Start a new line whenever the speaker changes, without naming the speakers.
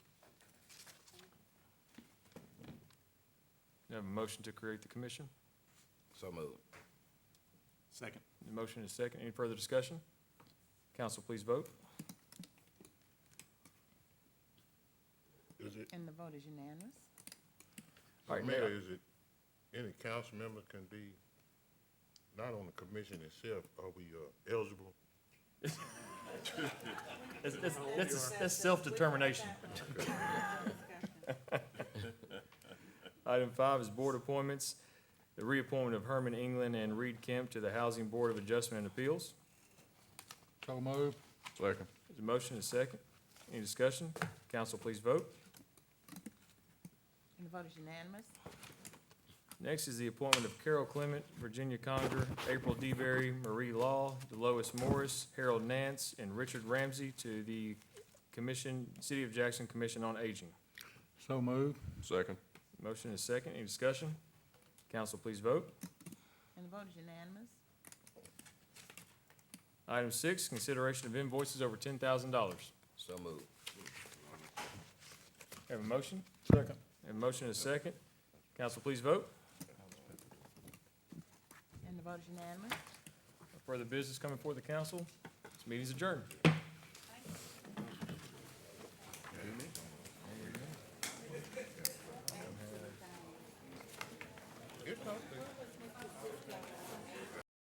You have a motion to create the commission?
So moved.
Second.
The motion is second. Any further discussion? Council, please vote.
Is it,
And the vote is unanimous.
All right,
Mayor,
Mayor.
is it, any council member can be, not on the commission itself, are we uh, eligible?
That's, that's, that's- that's self-determination. Item five is board appointments. The reappointment of Herman England and Reed Kemp to the Housing Board of Adjustment and Appeals.
So moved.
Second.
There's a motion is second. Any discussion? Council, please vote.
And the vote is unanimous.
Next is the appointment of Carol Clement, Virginia Conger, April DeBerry, Marie Law, Delois Morris, Harold Nance, and Richard Ramsey to the Commission, City of Jackson Commission on Aging.
So moved.
Second.
Motion is second. Any discussion? Council, please vote.
And the vote is unanimous.
Item six, consideration of invoices over ten thousand dollars.
So moved.
Have a motion?
Second.
Have a motion is second. Council, please vote.
And the vote is unanimous.
No Further business coming before the council. This meeting is adjourned.